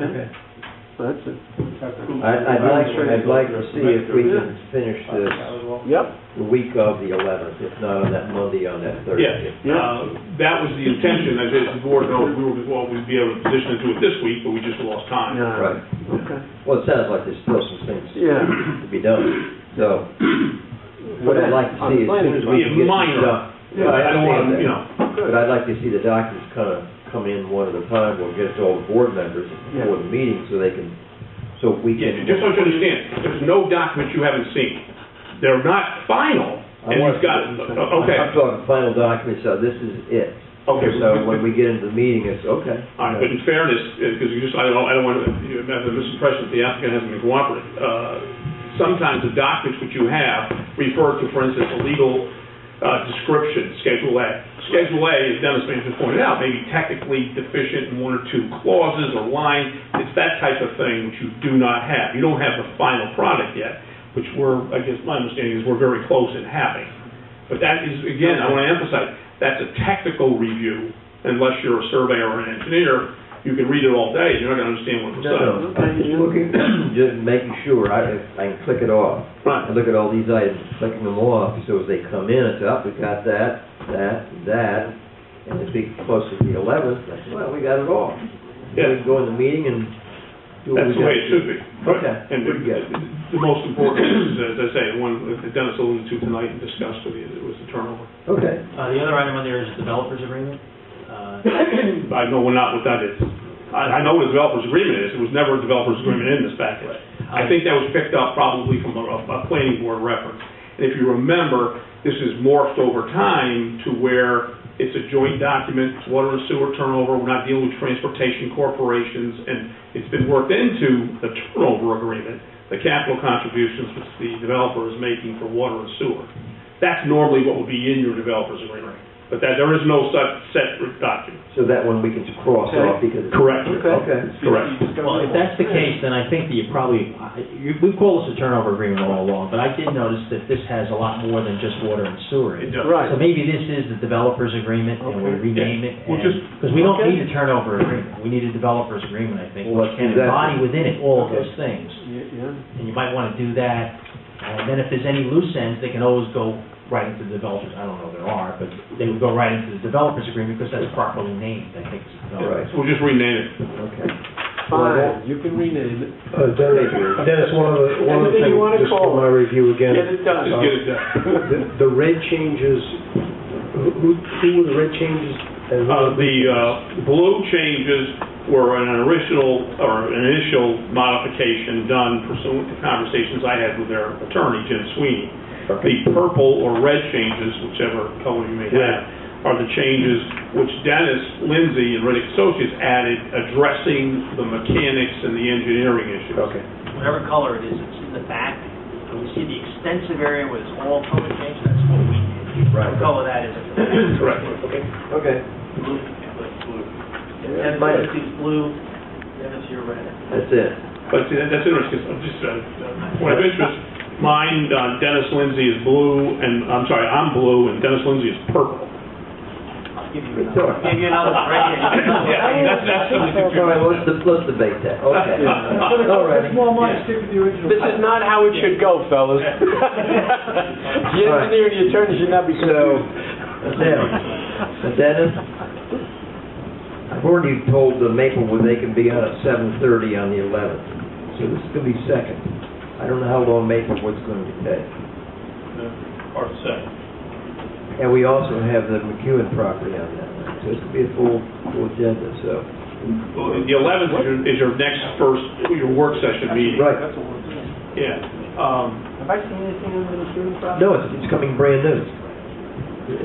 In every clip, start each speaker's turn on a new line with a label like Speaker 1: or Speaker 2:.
Speaker 1: Okay. That's it.
Speaker 2: I- I'd like, I'd like to see if we can finish this
Speaker 1: Yep.
Speaker 2: the week of the eleventh, if not on that Monday, on that Thursday.
Speaker 3: Yeah, uh, that was the intention, as as the board knows, we were, well, we'd be able to position to do it this week, but we just lost time.
Speaker 1: Yeah.
Speaker 2: Right.
Speaker 1: Okay.
Speaker 2: Well, it sounds like there's still some things
Speaker 1: Yeah.
Speaker 2: to be done, so what I'd like to see as soon as we
Speaker 3: Be
Speaker 2: can get this
Speaker 3: minor.
Speaker 2: done.
Speaker 3: Yeah, I don't want to, you know,
Speaker 2: But I'd like to see the documents kind of come in one at a time, we'll get it to all the board members before the meeting, so they can, so we
Speaker 3: yeah,
Speaker 2: can.
Speaker 3: just so you understand, there's no documents you haven't seen. They're not final,
Speaker 2: I
Speaker 3: and
Speaker 2: want-
Speaker 3: you've got, okay,
Speaker 2: I'm talking final documents, so this is it.
Speaker 3: okay.
Speaker 2: So when we get into the meeting, it's, okay.
Speaker 3: All right, but in fairness, because you just, I don't, I don't want to, you have the misimpression that the applicant hasn't been cooperative. Uh, Sometimes the documents which you have refer to, for instance, a legal uh, description, Schedule A. Schedule A, as Dennis may just pointed out, may be technically deficient in one or two clauses or lines. It's that type of thing which you do not have. You don't have the final product yet, which we're, I guess my understanding is we're very close in having. But that is, again, I want to emphasize, that's a technical review, unless you're a surveyor or an engineer, you can read it all day, you're not going to understand what was
Speaker 2: No, no,
Speaker 3: said.
Speaker 2: I'm just looking, just making sure I, I can click it off. I
Speaker 3: Right,
Speaker 2: look at all these items, clicking them off, so as they come in, it's up, we got that, that, that, and it's be close to the eleventh, that's, well, we got it all.
Speaker 3: Yeah.
Speaker 2: We can go in the meeting and do what
Speaker 3: that's
Speaker 2: we
Speaker 3: the
Speaker 2: got.
Speaker 3: way it should be.
Speaker 2: Okay,
Speaker 3: And
Speaker 2: pretty good.
Speaker 3: the- the most important is, as I say, the one that Dennis alluded to tonight and discussed with you, it was the turnover.
Speaker 2: Okay,
Speaker 4: Uh, the other item on there is developers agreement. Uh,
Speaker 3: I know we're not what that is. I, I know what a developer's agreement is, it was never a developer's agreement in this package. I think that was picked up probably from a, a planning board reference. And if you remember, this is morphed over time to where it's a joint document, it's water and sewer turnover, we're not dealing with transportation corporations, and it's been worked into the turnover agreement, the capital contributions which the developer is making for water and sewer. That's normally what would be in your developer's agreement, but that, there is no such set document.
Speaker 2: so that one we can just cross
Speaker 1: Okay.
Speaker 2: off because. it's-
Speaker 3: Correct.
Speaker 2: Okay.
Speaker 3: Correct.
Speaker 4: Well, if that's the case, then I think that you probably, I- you- we call this a turnover agreement all along, but I did notice that this has a lot more than just water and sewer. in
Speaker 3: It
Speaker 4: it.
Speaker 3: does.
Speaker 1: Right.
Speaker 4: So maybe this is the developers agreement, and we
Speaker 1: Okay.
Speaker 4: rename it,
Speaker 3: Well, just-
Speaker 4: because we don't
Speaker 1: Okay.
Speaker 4: need a turnover agreement, we need a developers agreement, I think,
Speaker 2: Well,
Speaker 4: which can
Speaker 2: exactly.
Speaker 4: embody within it all of
Speaker 1: Okay.
Speaker 4: those things.
Speaker 1: Yeah, yeah.
Speaker 4: And you might want to do that, and then if there's any loose ends, they can always go right into the developers, I don't know if there are, but they would go right into the developers agreement, because that's properly named, I think, as
Speaker 2: All
Speaker 4: developers.
Speaker 2: right,
Speaker 3: We'll just rename it.
Speaker 2: okay.
Speaker 1: Fine, you can rename it.
Speaker 5: Uh, Dennis, Dennis, one of the, one of the
Speaker 1: Anything
Speaker 5: things,
Speaker 1: you wanna
Speaker 5: just
Speaker 1: call
Speaker 5: for my review
Speaker 1: Get
Speaker 5: again.
Speaker 1: it done.
Speaker 3: Just get it done.
Speaker 5: The- The red changes, who- who, who were the red changes? and who-
Speaker 3: Uh, the, uh, blue changes were an original, or an initial modification done pursuant to conversations I had with their attorney, Jim Sweeney. The purple or red changes, whichever color you may have, are the changes which Dennis Lindsay and Riddick Associates added addressing the mechanics and the engineering issues.
Speaker 2: Okay.
Speaker 6: whatever color it is, it's in the back, and you see the extensive area where it's all color changed, that's what we did.
Speaker 2: Right.
Speaker 6: The color that is.
Speaker 3: Correct.
Speaker 6: Okay.
Speaker 2: Okay,
Speaker 6: Blue, like blue.
Speaker 2: Yeah,
Speaker 6: And
Speaker 2: right.
Speaker 6: then it's blue, then it's your red.
Speaker 2: that's it.
Speaker 3: But see, that- that's interesting, 'cause I'm just, uh, uh, point of interest, mine, uh, Dennis Lindsay is blue, and, I'm sorry, I'm blue, and Dennis Lindsay is purple.
Speaker 6: I'll give you
Speaker 2: Good
Speaker 6: another.
Speaker 2: talk.
Speaker 6: Give you another, right
Speaker 3: Yeah,
Speaker 6: here.
Speaker 3: that's, that's something to
Speaker 2: All right, let's, let's debate that, okay. All righty.
Speaker 1: This is not how it should go, fellas. The engineer and the attorney should not be
Speaker 2: So,
Speaker 1: confused.
Speaker 2: now, Dennis, I've already told the Maplewood they can be out at seven thirty on the eleventh, so this is gonna be second. I don't know how long Maplewood's gonna take.
Speaker 3: Hard to say.
Speaker 2: And we also have the McEwen property on that, so it's gonna be a full, full agenda, so.
Speaker 3: Well, The eleventh is your, is your next first, your work session meeting.
Speaker 2: Right,
Speaker 3: Yeah. Um,
Speaker 6: Have I seen anything in the student problem?
Speaker 2: no, it's, it's coming brand new.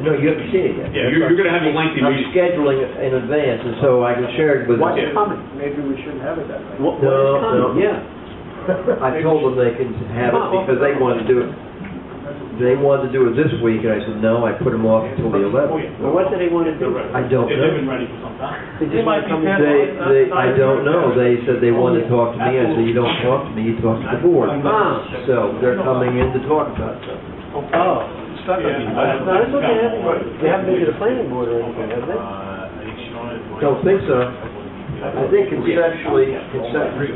Speaker 2: No, you haven't seen it yet.
Speaker 3: yeah, you're, you're gonna have a lengthy
Speaker 2: I'm
Speaker 3: meeting.
Speaker 2: scheduling it in advance, and so I can share it with.
Speaker 1: What's
Speaker 3: Yeah.
Speaker 1: coming?
Speaker 6: Maybe we shouldn't have it that way.
Speaker 1: What, what is
Speaker 2: No, no,
Speaker 1: coming?
Speaker 2: yeah. I told them they can have it because they wanted to do it, they wanted to do it this week, and I said, no, I put them off until the
Speaker 3: Oh,
Speaker 2: eleventh.
Speaker 3: yeah.
Speaker 1: Well, what do they want to do?
Speaker 3: They're ready.
Speaker 2: I don't
Speaker 3: They've
Speaker 2: know.
Speaker 3: been ready for some time.
Speaker 1: They just want to come
Speaker 2: They, they, I don't know, they said they wanted to talk to me, I said, you don't talk to me, you talk to the board.
Speaker 1: Ah,
Speaker 2: So they're coming in to talk about stuff.
Speaker 1: oh. No, that's what they haven't, they haven't been to the planning board or anything, have they?
Speaker 2: Don't think so. I think conceptually, conceptually,